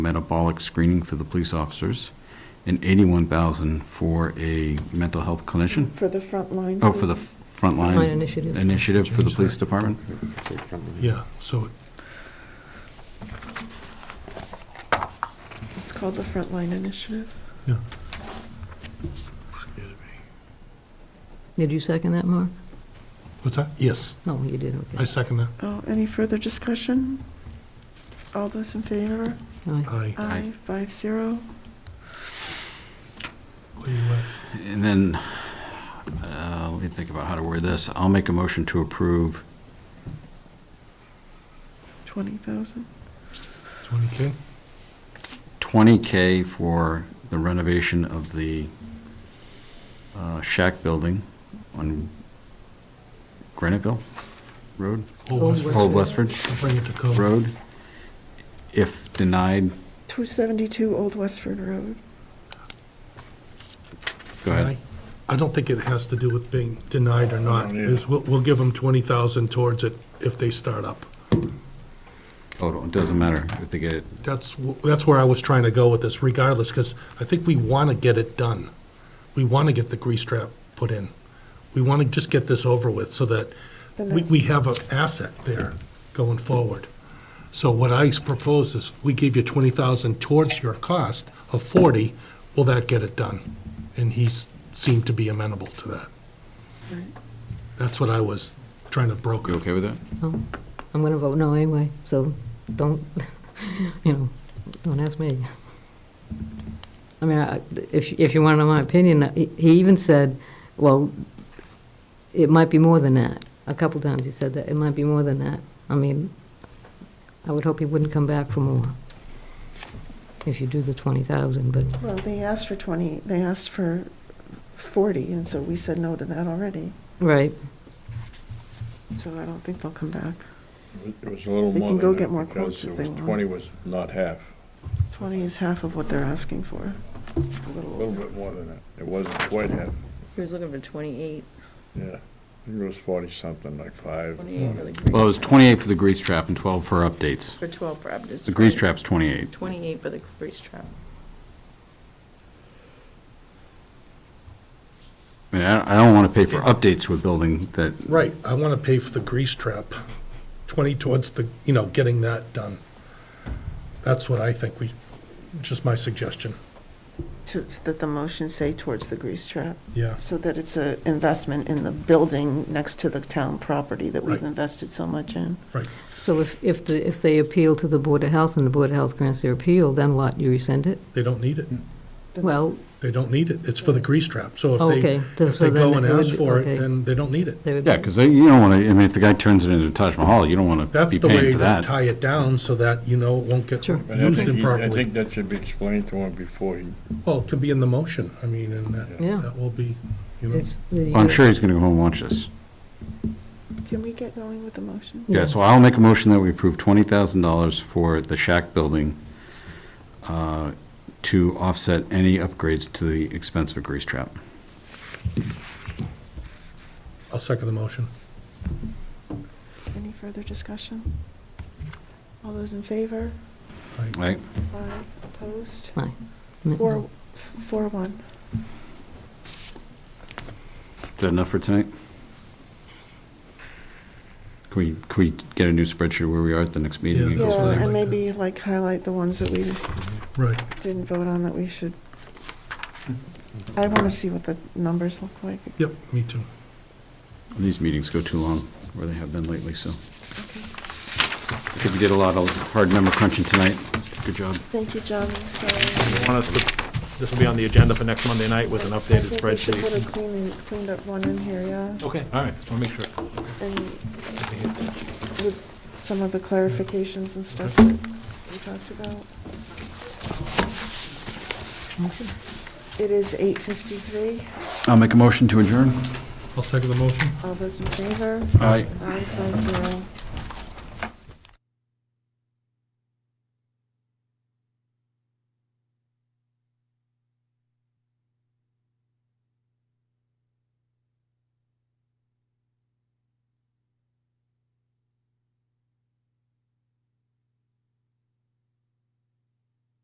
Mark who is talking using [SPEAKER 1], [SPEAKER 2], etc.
[SPEAKER 1] metabolic screening for the police officers, and 81,000 for a mental health clinician,
[SPEAKER 2] For the front line?
[SPEAKER 1] oh, for the
[SPEAKER 3] Frontline
[SPEAKER 1] frontline
[SPEAKER 3] initiative.
[SPEAKER 1] initiative for the police department.
[SPEAKER 4] Yeah, so,
[SPEAKER 2] It's called the Frontline Initiative.
[SPEAKER 4] yeah.
[SPEAKER 3] Did you second that, Mark?
[SPEAKER 4] What's that? Yes,
[SPEAKER 3] No, you did,
[SPEAKER 4] I
[SPEAKER 3] okay.
[SPEAKER 4] second that.
[SPEAKER 2] Oh, any further discussion? All those in favor?
[SPEAKER 3] Aye.
[SPEAKER 4] Aye.
[SPEAKER 2] Aye, five zero.
[SPEAKER 4] What do you want?
[SPEAKER 1] And then, uh, let me think about how to word this. I'll make a motion to approve,
[SPEAKER 2] Twenty thousand.
[SPEAKER 4] 20K?
[SPEAKER 1] 20K for the renovation of the uh, shack building on Graniteville Road,
[SPEAKER 4] Old
[SPEAKER 3] Old
[SPEAKER 4] Westford.
[SPEAKER 1] Old Westford
[SPEAKER 4] I'll bring it to code.
[SPEAKER 1] Road. If denied,
[SPEAKER 2] Two seventy-two Old Westford Road.
[SPEAKER 1] go ahead.
[SPEAKER 4] Aye. I don't think it has to do with being denied or not. Is we'll, we'll give them 20,000 towards it if they start up.
[SPEAKER 1] Oh, it doesn't matter if they get it.
[SPEAKER 4] That's, wh- that's where I was trying to go with this regardless, because I think we want to get it done. We want to get the grease trap put in. We want to just get this over with so that
[SPEAKER 2] And
[SPEAKER 4] we,
[SPEAKER 2] then-
[SPEAKER 4] we have an asset there going forward. So what I propose is we give you 20,000 towards your cost of 40, will that get it done? And he s- seemed to be amenable to that.
[SPEAKER 2] Right.
[SPEAKER 4] That's what I was trying to broker.
[SPEAKER 1] You okay with that?
[SPEAKER 3] No, I'm going to vote no anyway, so don't, you know, don't ask me. I mean, I- if, if you want to know my opinion, uh, he he even said, well, it might be more than that. A couple times he said that, it might be more than that. I mean, I would hope he wouldn't come back for more if you do the 20,000, but,
[SPEAKER 2] Well, they asked for twenty, they asked for forty, and so we said no to that already.
[SPEAKER 3] right.
[SPEAKER 2] So I don't think they'll come back.
[SPEAKER 5] It was a little
[SPEAKER 2] They
[SPEAKER 5] more
[SPEAKER 2] can go
[SPEAKER 5] than
[SPEAKER 2] get more
[SPEAKER 5] that,
[SPEAKER 2] quotes if
[SPEAKER 5] because it
[SPEAKER 2] they
[SPEAKER 5] was,
[SPEAKER 2] want.
[SPEAKER 5] 20 was not half,
[SPEAKER 2] Twenty is half of what they're asking for. A
[SPEAKER 5] a
[SPEAKER 2] little
[SPEAKER 5] little
[SPEAKER 2] over.
[SPEAKER 5] bit more than that. It wasn't quite half,
[SPEAKER 6] He was looking for 28,
[SPEAKER 5] yeah. I think it was 40-something, like five.
[SPEAKER 6] 28 for the grease.
[SPEAKER 1] Well, it was 28 for the grease trap and 12 for updates.
[SPEAKER 6] For 12 for Abington.
[SPEAKER 1] The grease trap's 28.
[SPEAKER 6] 28 for the grease trap.
[SPEAKER 1] I mean, I I don't want to pay for updates to a building that,
[SPEAKER 4] Right, I want to pay for the grease trap, 20 towards the, you know, getting that done. That's what I think we, just my suggestion,
[SPEAKER 2] To, that the motion say towards the grease trap,
[SPEAKER 4] yeah.
[SPEAKER 2] so that it's a investment in the building next to the town property that we've
[SPEAKER 4] Right.
[SPEAKER 2] invested so much in.
[SPEAKER 3] So if, if, the- if they appeal to the Board of Health and the Board of Health grants their appeal, then what? You rescind it?
[SPEAKER 4] They don't need it.
[SPEAKER 3] Well,
[SPEAKER 4] They don't need it. It's for the grease trap. So if
[SPEAKER 3] Okay,
[SPEAKER 4] they, if
[SPEAKER 3] so
[SPEAKER 4] they go
[SPEAKER 3] then
[SPEAKER 4] and
[SPEAKER 3] it would
[SPEAKER 4] ask
[SPEAKER 3] be-
[SPEAKER 4] for
[SPEAKER 3] okay.
[SPEAKER 4] it, then they don't need it.
[SPEAKER 3] they would.
[SPEAKER 1] yeah, because you don't want to, I mean, if the guy turns it into Taj Mahal, you don't want to
[SPEAKER 4] That's
[SPEAKER 1] be
[SPEAKER 4] the way
[SPEAKER 1] paying for
[SPEAKER 4] to
[SPEAKER 1] that.
[SPEAKER 4] tie it down so that, you know, it won't get
[SPEAKER 3] Sure.
[SPEAKER 5] And I
[SPEAKER 4] used
[SPEAKER 5] think he- I
[SPEAKER 4] improperly.
[SPEAKER 5] think that should be explained to him before he,
[SPEAKER 4] Well, it could be in the motion. I mean, and that,
[SPEAKER 3] Yeah.
[SPEAKER 4] that will be, you know.
[SPEAKER 3] It's- you
[SPEAKER 1] Well, I'm
[SPEAKER 3] gotta-
[SPEAKER 1] sure he's going to go home and watch this.
[SPEAKER 2] Can we get going with the motion?
[SPEAKER 1] Yeah,
[SPEAKER 3] Yeah.
[SPEAKER 1] so I'll make a motion that we approve $20,000 for the shack building uh, to offset any upgrades to the expense of a grease trap.
[SPEAKER 4] I'll second the motion.
[SPEAKER 2] Any further discussion? All those in favor?
[SPEAKER 1] Right?
[SPEAKER 2] Aye. Opposed?
[SPEAKER 3] No.
[SPEAKER 2] Four, four, one.
[SPEAKER 1] Is that enough for tonight? Can we, can we get a new spreadsheet where we are at the next meeting?
[SPEAKER 4] Yeah,
[SPEAKER 1] and go
[SPEAKER 4] that's
[SPEAKER 1] from
[SPEAKER 4] what
[SPEAKER 1] there?
[SPEAKER 4] I
[SPEAKER 2] Yeah, and
[SPEAKER 4] like that.
[SPEAKER 2] maybe like highlight the ones that we
[SPEAKER 4] Right.
[SPEAKER 2] didn't vote on that we should. I want to see what the numbers look like.
[SPEAKER 4] Yep, me too.
[SPEAKER 1] These meetings go too long, where they have been lately, so. I think we did a lot of hard number crunching tonight. Good job.
[SPEAKER 2] Thank you, John. Sorry.
[SPEAKER 7] want us to, this will be on the agenda for next Monday night with an
[SPEAKER 2] I
[SPEAKER 7] updated
[SPEAKER 2] think we should put a
[SPEAKER 7] spreadsheet.
[SPEAKER 2] clean, cleaned up one in here, yeah,
[SPEAKER 7] Okay, all right, I'll make sure.
[SPEAKER 2] and with some of the clarifications and stuff that we talked about.
[SPEAKER 3] Motion?
[SPEAKER 2] It is eight fifty-three.
[SPEAKER 1] I'll make a motion to adjourn.
[SPEAKER 4] I'll second the motion.
[SPEAKER 2] All those in favor?
[SPEAKER 1] Aye.
[SPEAKER 2] Aye, five zero.